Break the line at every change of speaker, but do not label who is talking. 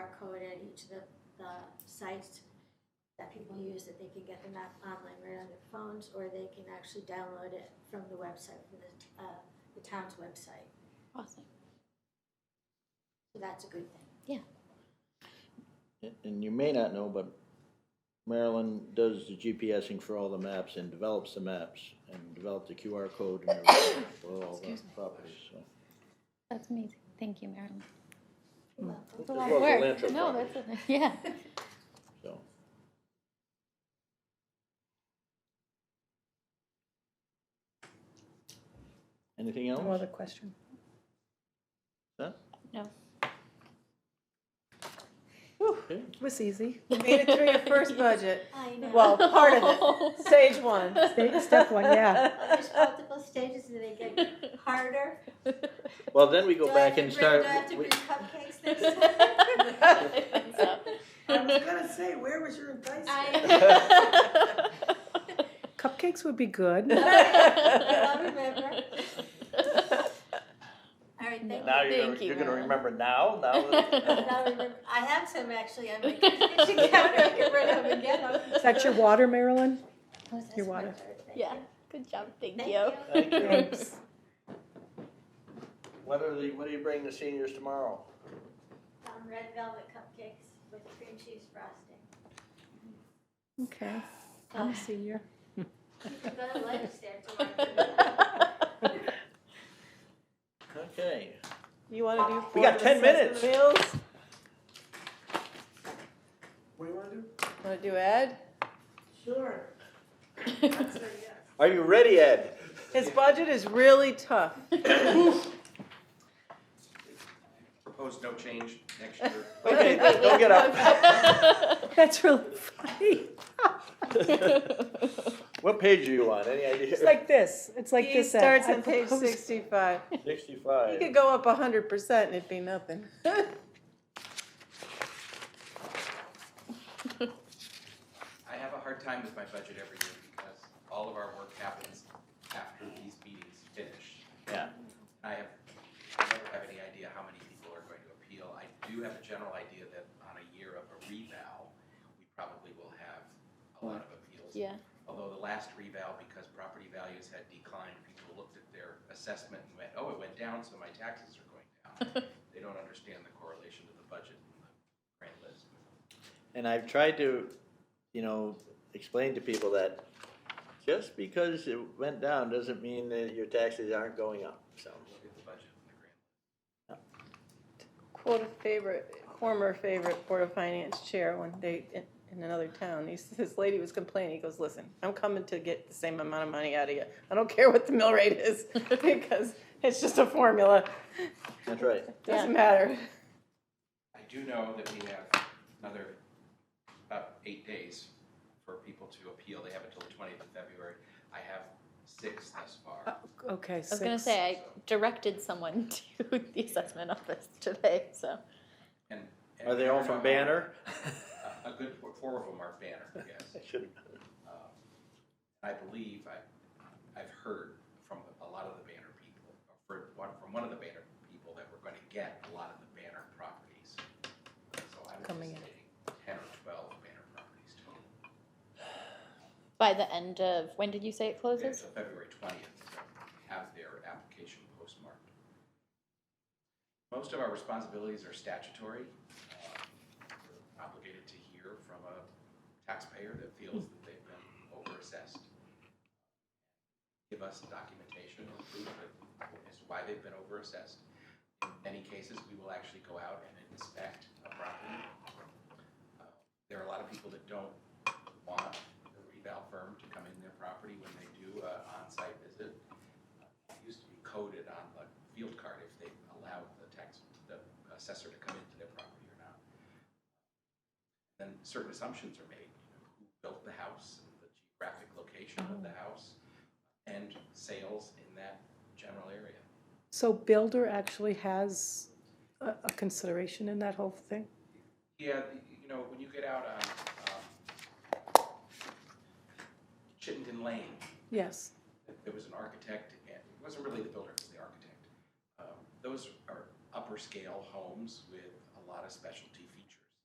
at each of the, the sites that people use, that they can get the map online right on their phones, or they can actually download it from the website, from the, uh, the town's website.
Awesome.
So that's a good thing.
And- And you may not know, but Maryland does the GPSing for all the maps and develops the maps and developed the QR code and everything for all the
Excuse me.
properties, so.
That's amazing. Thank you, Marilyn.
Well,
That's a
As
lot
well
of
as the land
work.
trust
No,
properties,
that's, a- yeah.
So, Anything else?
No other question?
Huh?
No.
Okay.
It was easy.
You made it through your first budget.
I know.
Well, part of it. Stage one.
Stage- step one, yeah.
There's multiple stages and they get harder.
Well, then we go
Do I
back
have to bring-
and start.
Do I have to
we-
bring cupcakes next time?
I was gonna say, where was your advice?
I,
Cupcakes would be good.
I'll remember. All right, thank you.
Now you're,
Thank
gonna-
you,
you're gonna
Marilyn.
remember now, now. that-
I'll remember. I have some actually on my kitchen counter. I can run up and get them.
Is that your water, Marilyn?
Oh, that's
Your
my
water.
third, thank
Yeah,
you.
good job. Thank
Thank
you.
you.
Thank you.
Thanks.
What are the, what do you bring the seniors tomorrow?
Um, red velvet cupcakes with cream cheese frosting.
Okay. I'm a senior.
You can go to legislature to work for that.
Okay,
You want to do
We got
Board of
10 minutes.
Assessment Appeals?
What do you wanna do?
Want to do Ed?
Sure. Say yes.
are you ready, Ed?
His budget is really tough.
Propose no change next year.
Okay, don't get up.
That's really funny.
What page are you on, any
It's
idea?
like this. It's like
He
this. ad.
starts
I
on page
propose-
sixty-five. He could
Sixty-five.
go up hundred percent and it'd be nothing.
I have a hard time with my budget every year because all of our work happens after these meetings finish.
Yeah.
I have, I never have any idea how many people are going to appeal. I do have a general idea that on a year of a revow, we probably will have a lot of appeals.
Yeah.
Although the last revow, because property values had declined, people looked at their assessment and went, oh, it went down, so my taxes are going down. They don't understand the correlation to the budget and the grant list.
And I've tried to, you know, explain to people that just because it went down doesn't mean that your taxes aren't going up, so.
Look at the budget and the grant.
Quote a favorite, former favorite Board of Finance chair one day in, in another town. He, s- this lady was complaining. He goes, listen, I'm coming to get the same amount of money out of you. I don't care what the mill rate is because it's just a formula.
That's right.
Doesn't matter.
I do know that we have another, about eight days for people to appeal. They have until the twentieth of February. I have six thus far.
Okay.
I was gonna say I directed someone to the assessment office today, so
And- and
Are they all from Banner?
A a good, four- four of them are Banner, yes.
Should-
Um, I believe, I, I've heard from a lot of the Banner people, or for one- from one of the Banner people, that we're gonna get a lot of the Banner properties. So I'm
Coming in.
anticipating ten or twelve Banner properties total.
by the end of when did you say it
Yeah,
closes?
so February twentieth, have their application postmarked. Most of our responsibilities are statutory. Uh, We're Obligated to hear from a taxpayer that feels that they've been overassessed. Give us documentation or proof that is why they've been overassessed. In many cases, we will actually go out and inspect a property. Uh, There are a lot of people that don't want the reval firm to come in their property when they do an on-site visit. It used to be coded on the field card if they allowed the tax, the assessor to come into their property or not. Then certain assumptions are made, you know, who built the house, and the geographic location of the house, and sales in that general area.
So builder actually has a, a consideration in that whole thing.
Yeah, you know, when you get out on um, Chittenden Lane,
Yes.
there was an architect, and it wasn't really the builder, it was the architect. Um, Those are upper scale homes with a lot of specialty